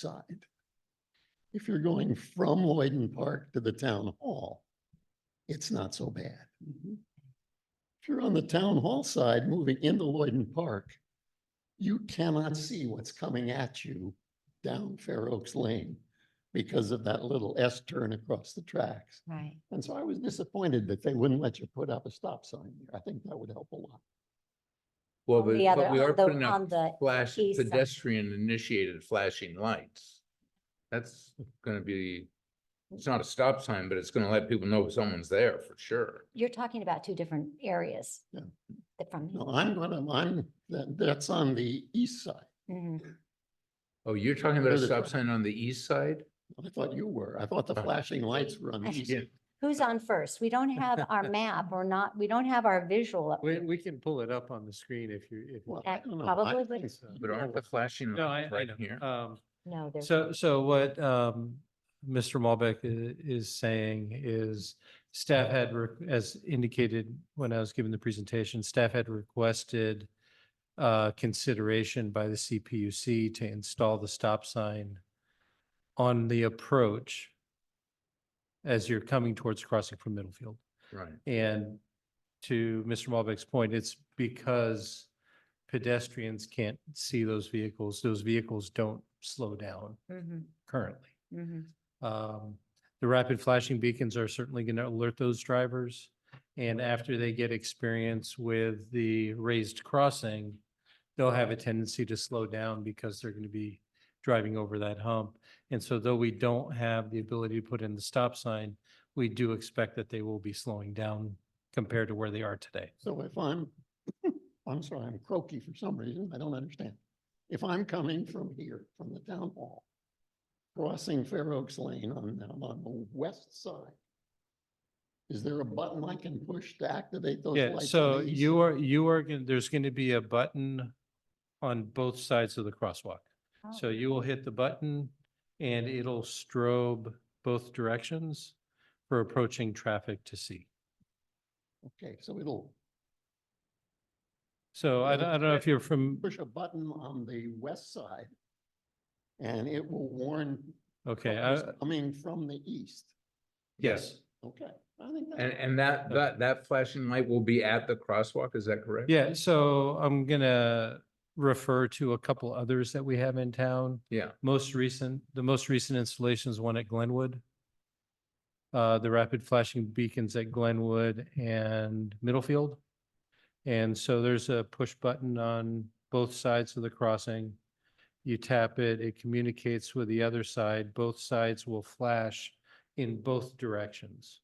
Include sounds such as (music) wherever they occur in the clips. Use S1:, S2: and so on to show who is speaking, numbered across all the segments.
S1: side. If you're going from Lloyden Park to the town hall, it's not so bad. If you're on the town hall side, moving into Lloyden Park, you cannot see what's coming at you down Fair Oaks Lane because of that little S turn across the tracks.
S2: Right.
S1: And so I was disappointed that they wouldn't let you put up a stop sign there. I think that would help a lot.
S3: Well,
S2: On
S3: but
S2: the other,
S3: but we are
S2: on the-
S3: putting up
S2: on the
S3: flash
S2: east side.
S3: pedestrian initiated flashing lights. That's gonna be, it's not a stop sign, but it's gonna let people know someone's there for sure.
S2: You're talking about two different areas.
S1: Yeah.
S2: that From,
S1: No, I'm gonna, I'm, that, that's on the east side.
S2: Mhm.
S3: Oh, you're talking about a
S1: There's a-
S3: stop sign on the east side?
S1: I thought you were. I thought the
S3: Uh,
S1: flashing lights were on the east.
S3: Yeah.
S1: side.
S2: who's on first? We don't have our
S3: (laughs)
S2: map. We're not, we don't have our visual. up
S4: We,
S2: here.
S4: we can pull it up on the screen if you, if.
S1: Well,
S4: you-
S1: I
S2: That
S1: don't know.
S2: probably
S1: I
S2: would-
S1: think so.
S3: But aren't the flashing
S4: No, I,
S3: lights
S4: I
S3: right here?
S4: know. Um,
S2: No, there's.
S4: so, so what, um, Mr. Malbec i- is saying is staff had, re- as indicated when I was giving the presentation, staff had requested uh, consideration by the CPUC to install the stop sign on the approach as you're coming towards crossing from Middlefield.
S3: Right.
S4: And to Mr. Malbec's point, it's because pedestrians can't see those vehicles. Those vehicles don't slow down
S2: Mhm,
S4: currently.
S2: mhm.
S4: Um, The rapid flashing beacons are certainly going to alert those drivers. And after they get experience with the raised crossing, they'll have a tendency to slow down because they're going to be driving over that hump. And so though we don't have the ability to put in the stop sign, we do expect that they will be slowing down compared to where they are today.
S1: So if I'm, (coughs) I'm sorry, I'm croaky for some reason. I don't understand. If I'm coming from here, from the town hall, crossing Fair Oaks Lane on, I'm on the west side, is there a button I can push to activate those lights?
S4: Yeah,
S1: on the
S4: so
S1: east
S4: you are, you are, gonna- there's going to be a button on both sides of the crosswalk. So
S2: Oh,
S4: you will hit the button and it'll strobe both directions for approaching traffic to see.
S1: Okay, so it'll
S4: So I
S1: Yeah,
S4: don't, I don't know if you're from,
S1: push a button on the west side and it will warn
S4: okay,
S1: truckers
S4: I-
S1: coming from the east.
S3: uh, Yes,
S1: Okay, I think
S3: and,
S1: that,
S3: and that, that, that flashing light will be at the crosswalk, is that correct?
S4: yeah, so I'm gonna refer to a couple others that we have in town.
S3: Yeah,
S4: Most recent, the most recent installation is one at Glenwood. Uh, the rapid flashing beacons at Glenwood and Middlefield. And so there's a push button on both sides of the crossing. You tap it, it communicates with the other side. Both sides will flash in both directions.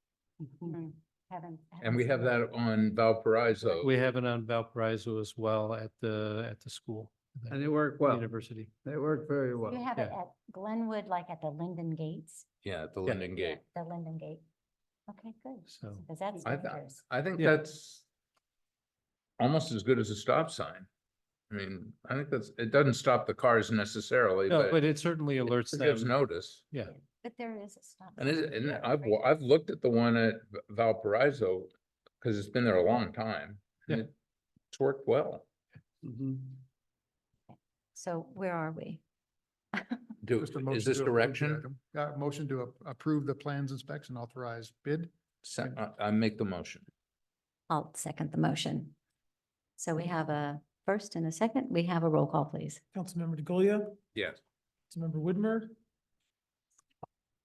S2: mhm. Haven't.
S3: and
S2: haven't
S3: we
S2: seen
S3: have that on Valparaiso.
S4: We have it on Valparaiso as well at the, at the school,
S5: And
S4: the
S5: they work well.
S4: university.
S5: They work very
S2: You
S5: well.
S2: have it
S4: yeah.
S2: at Glenwood, like at the Linden Gates?
S3: Yeah, at the Linden Gate.
S2: The Linden Gate. Okay, good.
S4: So-
S2: Because that's
S3: I thought-
S2: dangerous.
S3: I think
S4: Yeah.
S3: that's almost as good as a stop sign. I mean, I think that's, it doesn't stop the cars necessarily,
S4: No,
S3: but
S4: but
S3: it
S4: it certainly alerts
S3: gives
S4: them.
S3: notice.
S4: Yeah.
S2: But there is a stop.
S3: And is,
S2: sign
S3: and
S2: there,
S3: I've,
S2: right?
S3: wa- I've looked at the one at V- Valparaiso, because it's been there a long time. and
S4: Yeah.
S3: it- It's worked well.
S2: So where are we?
S3: Do,
S6: Just a motion
S3: is this
S6: to approve the
S3: direction?
S6: item. Uh, motion to ap- approve the plans inspection authorized bid.
S3: Se- I, I make the motion.
S2: I'll second the motion. So we have a first and a second. We have a roll call, please.
S7: Councilmember DeGolia,
S3: Yes.
S7: Councilmember Whitmer,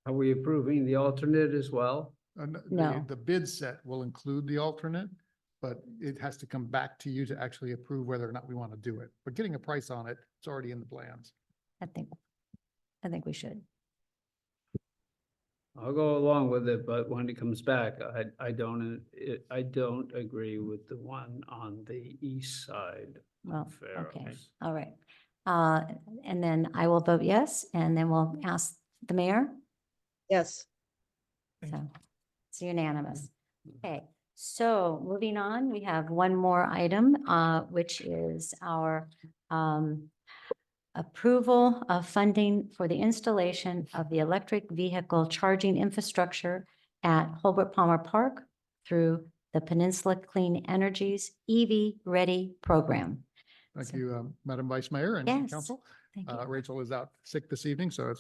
S5: Are we approving the alternate as well?
S6: And the-
S2: No.
S6: Uh, The bid set will include the alternate, but it has to come back to you to actually approve whether or not we want to do it. But getting a price on it, it's already in the plans.
S2: I think, I think we should.
S5: I'll go along with it, but when it comes back, I, I don't, it- I don't agree with the one on the east side.
S2: Well,
S5: Fair
S2: okay,
S5: enough.
S2: all right. Uh, And then I will vote yes, and then we'll ask the mayor.
S8: Yes.
S7: Thank
S2: So it's unanimous. Okay, so moving on, we have one more item, uh, which is our um, approval of funding for the installation of the electric vehicle charging infrastructure at Holbert Palmer Park through the Peninsula Clean Energies EV Ready Program.
S6: Thank
S2: So-
S6: you, um, Madam Vice Mayor and
S2: Yes.
S6: Council.
S2: Thank you.
S6: Uh, Rachel is out sick this evening, so it's